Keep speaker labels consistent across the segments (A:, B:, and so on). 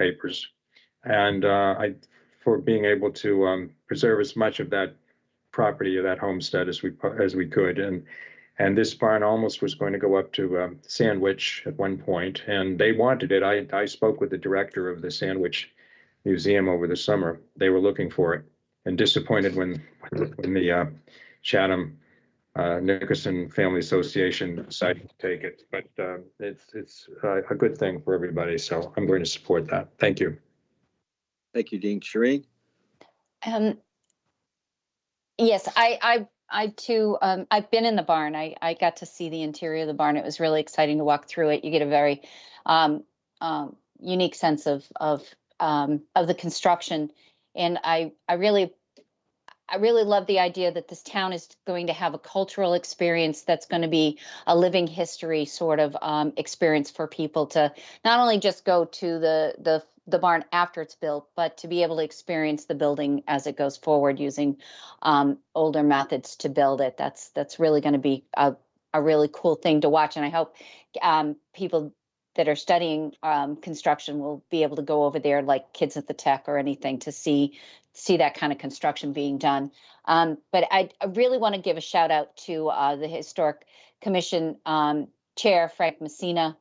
A: papers. And uh, I, for being able to um, preserve as much of that property of that homestead as we, po- as we could. And, and this barn almost was going to go up to um, Sandwich at one point, and they wanted it. I, I spoke with the director of the Sandwich Museum over the summer. They were looking for it and disappointed when, when the uh, Chatham uh, Nickerson Family Association decided to take it. But um, it's, it's uh, a good thing for everybody, so I'm going to support that. Thank you.
B: Thank you, Dean. Shereen?
C: Um, yes, I, I, I too, um, I've been in the barn. I, I got to see the interior of the barn. It was really exciting to walk through it. You get a very, um, um, unique sense of, of, um, of the construction. And I, I really, I really love the idea that this town is going to have a cultural experience that's going to be a living history sort of, um, experience for people to, not only just go to the the the barn after it's built, but to be able to experience the building as it goes forward using um, older methods to build it. That's that's really going to be a a really cool thing to watch, and I hope um, people that are studying um, construction will be able to go over there, like kids at the tech or anything, to see see that kind of construction being done. Um, but I, I really want to give a shout out to uh, the historic commission um, chair Frank Messina,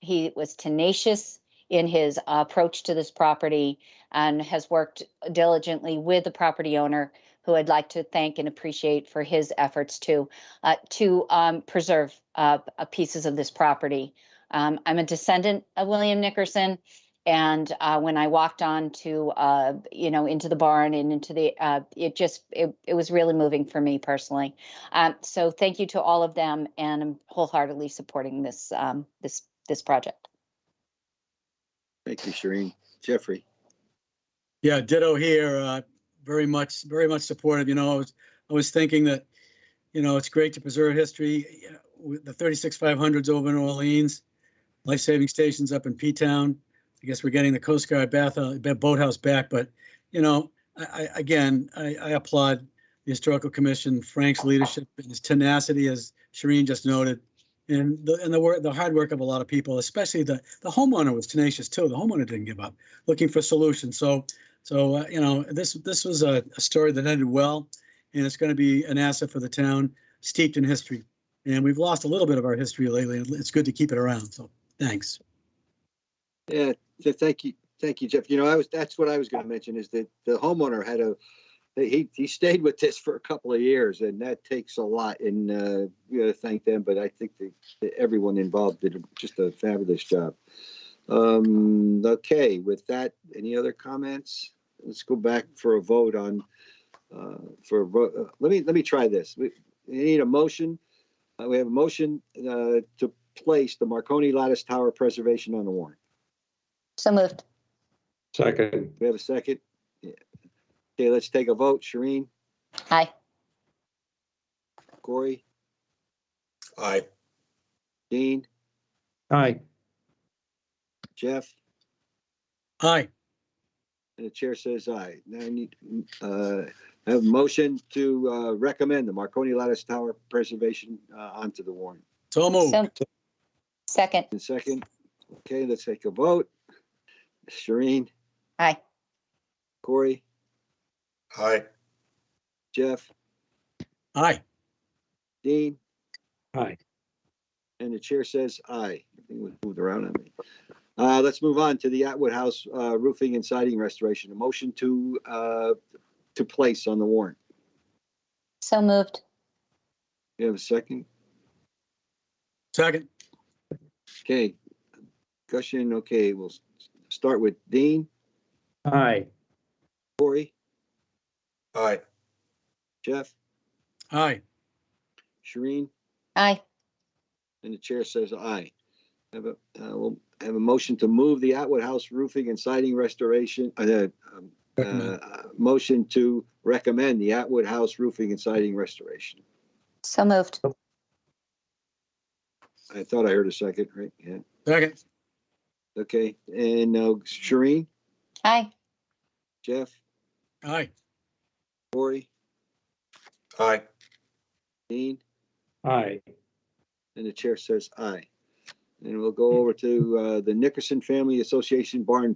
C: he was tenacious in his uh, approach to this property and has worked diligently with the property owner, who I'd like to thank and appreciate for his efforts to uh, to um, preserve uh, uh, pieces of this property. Um, I'm a descendant of William Nickerson, and uh, when I walked on to uh, you know into the barn and into the uh, it just it, it was really moving for me personally. Um, so thank you to all of them, and I'm wholeheartedly supporting this um, this this project.
B: Thank you, Shereen. Jeffrey?
D: Yeah, ditto here. Uh, very much, very much supportive. You know, I was, I was thinking that, you know, it's great to preserve history. you know, With the 36500s over in Orleans, life-saving stations up in P-Town. I guess we're getting the Coast Guard bath, uh, boathouse back, but, you know, I, I, again, I, I applaud the Historical Commission, Frank's leadership and his tenacity, as Shireen just noted. And the, and the work, the hard work of a lot of people, especially the, the homeowner was tenacious too. The homeowner didn't give up looking for solutions. So, so, uh, you know, this, this was a, a story that ended well, and it's going to be an asset for the town steeped in history. And we've lost a little bit of our history lately. and It's good to keep it around. So thanks.
B: Yeah, so thank you, thank you, Jeff. You know, I was, that's what I was gonna mention is that the homeowner had a, he, he stayed with this for a couple of years and that takes a lot and, uh, we gotta thank them, but I think that that everyone involved did just a fabulous job. Um, okay, with that, any other comments? Let's go back for a vote on, uh, for, a vote. uh, let me, let me try this. We, we need a motion. Uh, we have a motion, uh, to place the Marconi Lattice Tower Preservation on the warrant.
C: So moved.
A: Second,
B: We have a second? Yeah. Okay, let's take a vote. Shereen,
C: Aye.
B: Corey,
E: Aye.
B: Dean,
A: aye,
B: Jeff,
D: Aye,
B: and the chair says aye. Now I need, uh, I have a motion to, uh, recommend the Marconi Lattice Tower preservation, uh, onto the warrant.
D: so moved.
C: So second.
B: And second, okay, let's take a vote. Shereen,
C: Aye.
B: Corey,
E: Aye.
B: Jeff,
D: Aye,
B: Dean,
A: aye.
B: and the chair says aye. Everything was moved around on me. Uh, let's move on to the Atwood House, uh, roofing and siding restoration. A motion to, uh, to place on the warrant.
C: So moved.
B: You have a second?
D: second.
B: Okay. Discussion, okay, we'll s- start with Dean,
A: Aye,
B: Corey,
E: Aye.
B: Jeff,
D: Aye,
B: Shereen,
C: Aye.
B: and the chair says aye. Have a, uh, we'll have a motion to move the Atwood House roofing and siding restoration, uh, um,
D: Recommend.
B: uh, motion to recommend the Atwood House roofing and siding restoration.
C: So moved.
B: I thought I heard a second, right? Yeah,
D: second.
B: okay. And now Shereen,
C: Aye.
B: Jeff,
D: Aye,
B: Corey,
E: Aye.
B: Dean?
A: aye.
B: And the chair says aye. And we'll go over to uh, the Nickerson Family Association Barn